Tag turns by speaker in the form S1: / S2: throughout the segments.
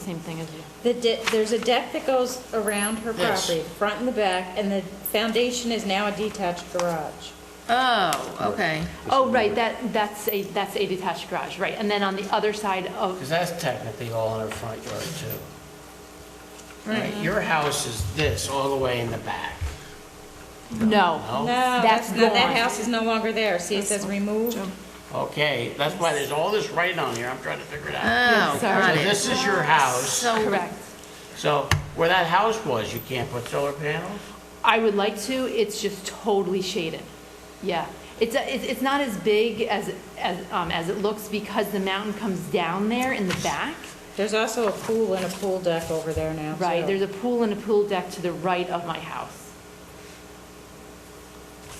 S1: same thing as you.
S2: The de- there's a deck that goes around her
S3: Yes.
S2: property, front and the back, and the foundation is now a detached garage.
S3: Oh, okay.
S1: Oh, right, that, that's a, that's a detached garage, right. And then on the other side of,
S4: Because that's technically all in her front yard too. Right, your house is this, all the way in the back.
S1: no.
S3: Oh,
S2: No,
S1: That's
S2: that's not, that
S1: gone.
S2: house is no longer there. See, it says removed.
S4: Okay, that's why there's all this writing on here, I'm trying to figure it out.
S3: Oh,
S1: Yes, sorry.
S3: got
S4: So
S3: it.
S4: this is your house,
S3: So,
S1: Correct.
S4: so where that house was, you can't put solar panels?
S1: I would like to, it's just totally shaded. Yeah. It's, a- it's it's not as big as, as, um, as it looks because the mountain comes down there in the back.
S2: There's also a pool and a pool deck over there now, too.
S1: Right, there's a pool and a pool deck to the right of my house.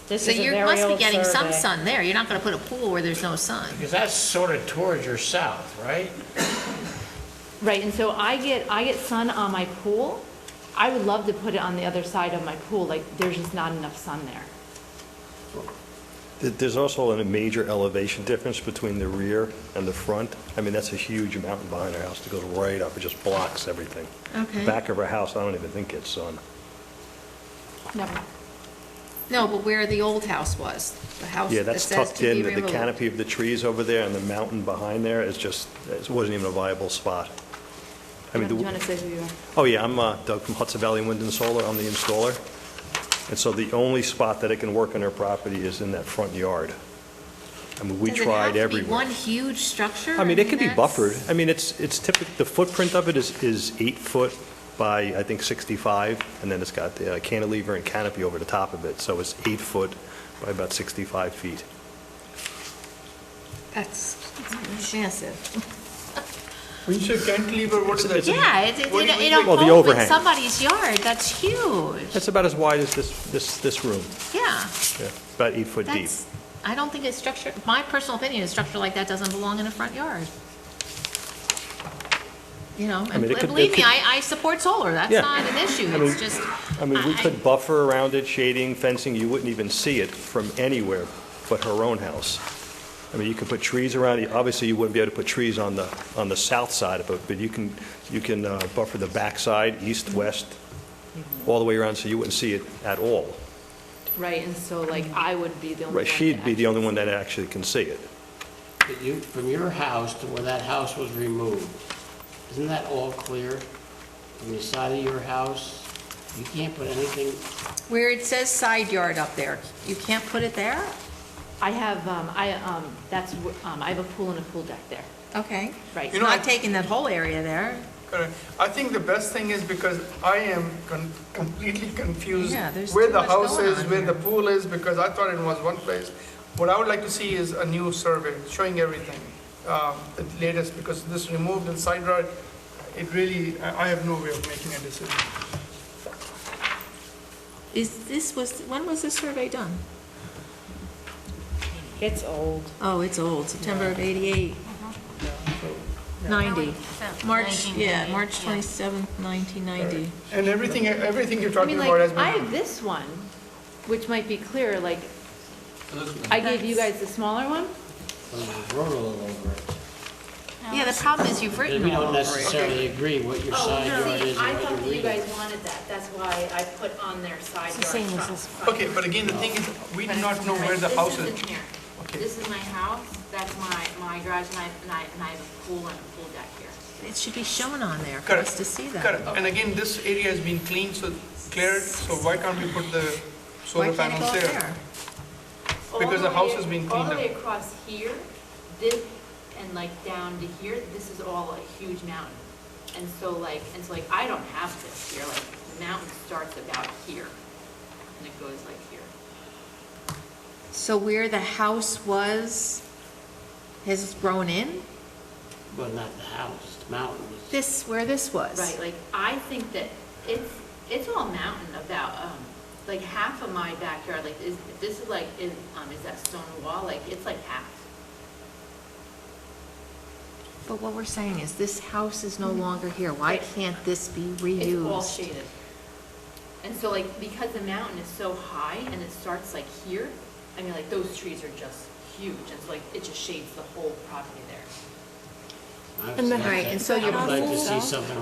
S2: This
S3: so
S2: is a
S3: you
S2: very
S3: must be
S2: old
S3: getting some
S2: survey.
S3: sun there. You're not gonna put a pool where there's no sun.
S4: Because that's sort of towards your south, right?
S1: Right, and so I get, I get sun on my pool. I would love to put it on the other side of my pool, like, there's just not enough sun there.
S5: There- There's also a major elevation difference between the rear and the front. I mean, that's a huge mountain behind our house that goes right up, it just blocks everything.
S3: Okay.
S5: Back of our house, I don't even think it's um, sun.
S1: Never.
S3: No, but where the old house was, the house
S5: Yeah,
S3: that
S5: that's
S3: says
S5: tucked
S3: to be
S5: in, with the
S3: removed.
S5: canopy of the trees over there and the mountain behind there, it's just, it wasn't even a viable spot. I
S1: Do
S5: mean,
S1: you
S5: the-
S1: want to say who you are?
S5: Oh, yeah, I'm uh, Doug from Hudson Valley Wind and Solar, I'm the installer. And so the only spot that it can work on our property is in that front yard. I mean, we tried
S3: Does it have to be
S5: everywhere.
S3: one huge structure?
S5: I mean, it could be
S3: that's-
S5: buffered. I mean, it's, it's typical, the footprint of it is, is eight foot by, I think, 65, and then it's got the uh, cantilever and canopy over the top of it, so it's eight foot by about 65 feet.
S3: That's massive.
S4: When you say cantilever, what's that?
S3: Yeah, it, it,
S4: What do you
S3: it
S4: think?
S5: Well, the
S3: opens
S5: overhang.
S3: somebody's yard. That's huge.
S5: It's about as wide as this, this, this room,
S3: Yeah,
S5: yeah, about eight foot deep.
S3: that's, I don't think a structure, my personal opinion, a structure like that doesn't belong in a front yard. You know, and
S5: mean, it could- it
S3: believe me,
S5: could-
S3: I, I support solar. That's
S5: Yeah.
S3: not an issue.
S5: I mean-
S3: It's just.
S5: I mean, we
S3: I-
S5: could buffer around it, shading, fencing, you wouldn't even see it from anywhere but her own house. I mean, you could put trees around it, obviously you wouldn't be able to put trees on the, on the south side of it, but you can, you can uh, buffer the backside, east, west, all the way around, so you wouldn't see it at all.
S1: Right, and so like, I would be the only one.
S5: Right, she'd
S1: that
S5: be the only one that actually can see it.
S4: That you- From your house to where that house was removed, isn't that all clear? From the side of your house, you can't put anything
S3: Where it says side yard up there, you can't put it there?
S1: actually- I have, um, I, um, that's, wh- um, I have a pool and a pool deck there,
S3: Okay.
S1: right.
S3: It's
S6: know,
S3: not
S6: I-
S3: taking that whole area there.
S6: Correct. I think the best thing is because I am con- completely confused
S3: Yeah, there's
S6: where
S3: too
S6: the
S3: much
S6: house
S3: going
S6: is,
S3: on
S6: where the
S3: here.
S6: pool is, because I thought it was one place. What I would like to see is a new survey showing everything, um, the latest, because this removed and side yard, it really, I I have no way of making a decision.
S3: Is, this was, when was this survey done?
S2: It's old.
S3: Oh, it's old, September of 88. 90. March, yeah, March 27th, 1990.
S6: And everything, everything you're
S1: I
S6: talking
S1: mean,
S6: about has
S1: like,
S6: been.
S1: I have this one, which might be clearer, like, I gave you guys the smaller one.
S4: rural over it.
S3: Yeah, the problem is you've
S4: Because
S3: written
S4: we
S3: all
S4: don't
S3: over it.
S4: necessarily agree what your
S7: Oh,
S4: side yard
S7: see,
S4: is
S7: I
S4: and
S7: thought
S4: what
S7: that
S4: you're
S7: you
S4: reading.
S7: guys wanted that, that's why I put on their side
S1: the
S7: yard
S1: same as
S7: front.
S1: this
S6: Okay, but again, the thing is, we do not know where the
S7: This
S6: house is.
S7: isn't here.
S6: Okay.
S7: This is my house, that's my, my garage, and I, and I, and I have a pool and a pool deck here.
S3: It should be shown on there for
S6: Correct.
S3: us to see that.
S6: Correct, and again, this area has been cleaned, so cleared, so why can't we put the
S3: Why
S6: solar
S3: can't it go
S6: panels
S3: up
S6: there?
S3: there?
S7: All
S6: Because the house
S7: way-
S6: has been
S7: All
S6: cleaned
S7: the
S6: up.
S7: way across here, this, and like down to here, this is all a huge mountain. And so like, and so like, I don't have this here, like, the mountain starts about here, and it goes like here.
S3: So where the house was has grown in?
S4: Well, not the house, the mountain was.
S3: This, where this was?
S7: Right, like, I think that it's, it's all mountain about, um, like, half of my backyard, like, is, this is like, is, um, is that stone wall, like, it's like half.
S3: But what we're saying is this house is no longer here. Why can't this be reused?
S7: It's all shaded. And so like, because the mountain is so high and it starts like here, I mean, like, those trees are just huge, and so like, it just shades the whole property there.
S4: I've
S1: And the-
S4: said
S3: Right,
S4: that.
S3: and so your
S4: I would like to see
S3: pool-
S4: something